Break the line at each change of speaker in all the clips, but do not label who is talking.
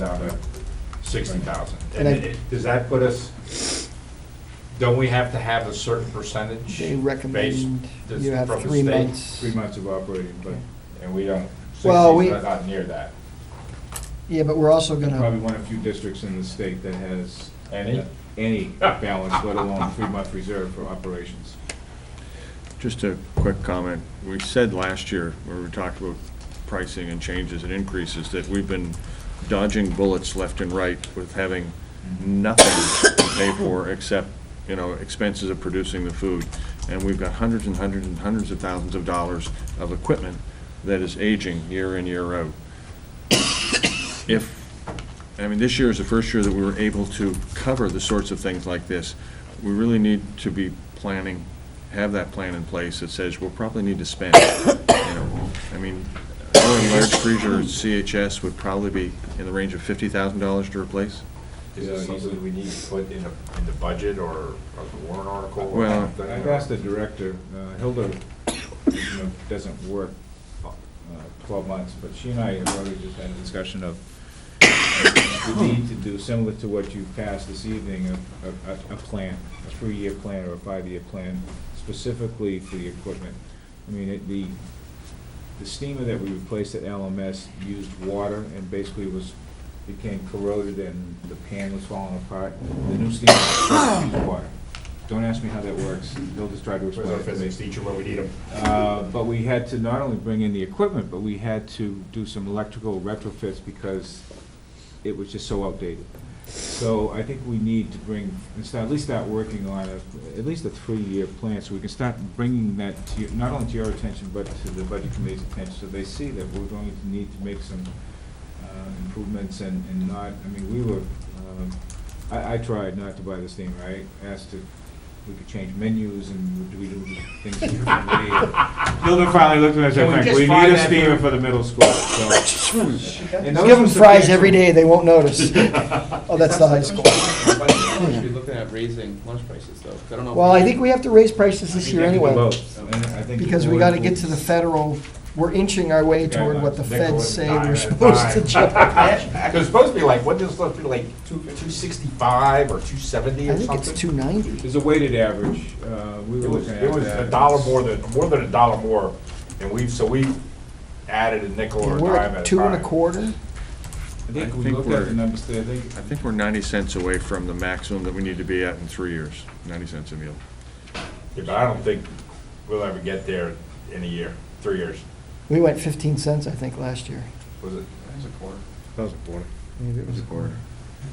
down to sixty thousand.
And
And
I-
it- does that put us, don't we have to have a certain percentage?
They
based-
recommend
does-
you have
from the
three
state?
months.
Three months of operating, but, and we don't,
Well,
sixty's
we-
not- not near that.
Yeah, but we're also
Probably
gonna,
one of few districts in the state that has.
Any?
Any balance, let alone three-month reserve for operations.
Just a quick comment. We said last year, when we talked about pricing and changes and increases, that we've been dodging bullets left and right with having nothing to pay for except, you know, expenses of producing the food. And we've got hundreds and hundreds and hundreds of thousands of dollars of equipment that is aging year in, year out. If I mean, this year is the first year that we were able to cover the sorts of things like this. We really need to be planning, have that plan in place that says we'll probably need to spend, you know. I mean, our large freezer at CHS would probably be in the range of fifty thousand dollars to replace.
Is
Uh,
it something we need to put in the, in the budget or or the warrant article? or
Well-
something?
But I've asked the director, uh, Hilda, you know, doesn't work uh, twelve months, but she and I have already just had a discussion of the need to do similar to what you passed this evening, a, a, a- a plan, a three-year plan or a five-year plan specifically for the equipment. I mean, it, the, the steamer that we replaced at LMS used water and basically was, became corroded and the pan was falling apart. The new steamer used water. Don't ask me how that works. They'll just try to
Where's
explain
our
it to me.
physics teacher when we need him?
Uh, But we had to not only bring in the equipment, but we had to do some electrical retrofits because it was just so outdated. So I think we need to bring, and start, at least start working on a, at least a three-year plan, so we can start bringing that to, you- not only to your attention, but to the budget committee's attention, so they see that we're going to need to make some uh, improvements and, and not, I mean, we were, um, I, I tried not to buy the steamer. I asked if we could change menus and do we do things differently. Hilda finally looked at us
Can we
and said,
just
we
find
need a
that
steamer
for-
for the middle school, so. And
give
those were
them fries
substantial-
every day, they won't notice. Oh, that's the high school.
We should be looking at raising lunch prices, though, 'cause I don't know. if
Well, I think we have to raise prices this year
Yeah, we did
anyway,
both, and I think the
because we
board
gotta
will-
get to the federal, we're inching our way toward what the feds say we're supposed to jump.
It's supposed to be like, what does it supposed to be like, two, two sixty-five or two seventy
I
or
think it's
something?
two ninety.
There's a weighted average, uh, we were
It was,
looking at
it was
that.
a dollar more than, more than a dollar more, and we've, so we added a nickel or a
We're
dime at a
at two and a
time.
quarter.
I think
I
we
think
looked at
we're-
the numbers there, I think,
I think we're ninety cents away from the maximum that we need to be at in three years, ninety cents a meal.
Yeah, but I don't think we'll ever get there in a year, three years,
We went fifteen cents, I think, last year.
was it?
That was a quarter.
Maybe it
It
was,
was a quarter.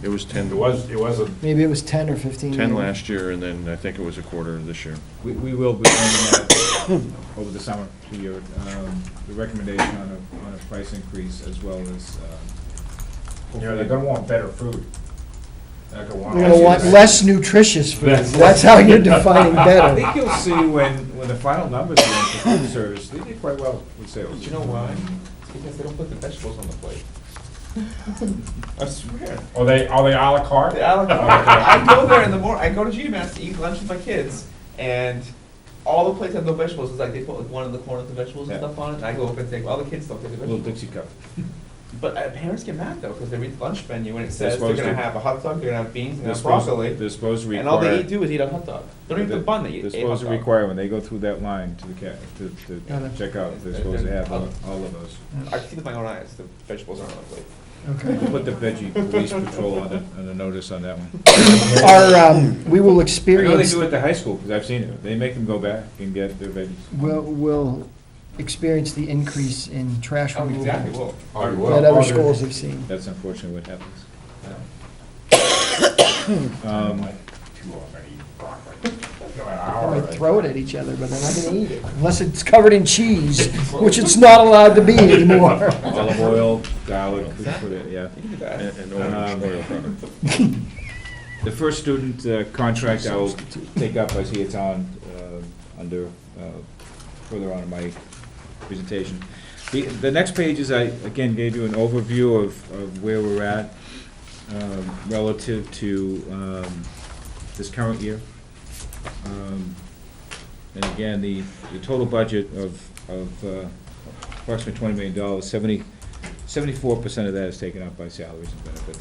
It was ten.
It was, it was a,
maybe it was ten or fifteen.
Ten
maybe.
last year, and then I think it was a quarter this year.
we, we will be doing that over the summer, to your, um, the recommendation on a, on a price increase as well as, uh.
you know, they're gonna want better food. They're gonna want.
We're gonna want less nutritious food.
Less-
That's how you're defining
I
better.
think you'll see when, when the final numbers are in for food service, they did quite well with sales.
Do you know why? It's because they don't put the vegetables on the plate. I swear.
Are they, are they à la carte?
The ala carte. I go there in the morning, I go to GMS to eat lunch with my kids, and all the plates have no vegetables, it's like they put like one in the corner with the vegetables and
Yeah.
stuff on it, and I go up and take, all the kids don't take the
Little
vegetables.
Dixie cup.
But uh, parents get mad, though, because they read the lunch menu, and it
They're
says they're
supposed to.
gonna have a hot dog, they're gonna have beans, and
They're
have
supposed-
broccoli,
They're supposed to require.
and all they eat do is eat a hot dog. They don't eat the bun, they eat a hot dog.
They're supposed to require, when they go through that line to the ca, to, to
Got it.
check out, they're
They're-
supposed to
they're-
have all all of those.
I see with my own eyes, the vegetables aren't on the plate.
Mm-hmm. Okay.
We'll Put the veggie police patrol on it, on a notice on that one.
Our, um, we will
I know they
experience,
do it at the high school, because I've seen it, they make them go back and get their veggies.
we'll, we'll experience the increase in trash
Oh,
removal
exactly,
that
well,
Oh, you will.
other schools have seen.
That's unfortunately what happens.
Um,
Um,
like, too already broccoli. Go an hour
They
of
might
it.
throw it at each other, but they're not gonna eat it, unless it's covered in cheese, which it's not allowed to be anymore.
Olive oil, garlic, we put it, yeah.
you can do that.
And, and
Um,
oil- oil product.
The first student uh, contract I will take up, I see it's on, uh, under, uh, further on in my presentation. The, the next page is, I, again, gave you an overview of, of where we're at um, relative to um, this current year. Um, And again, the, the total budget of, of uh, approximately twenty million dollars, seventy, seventy-four percent of that is taken up by salaries and benefits.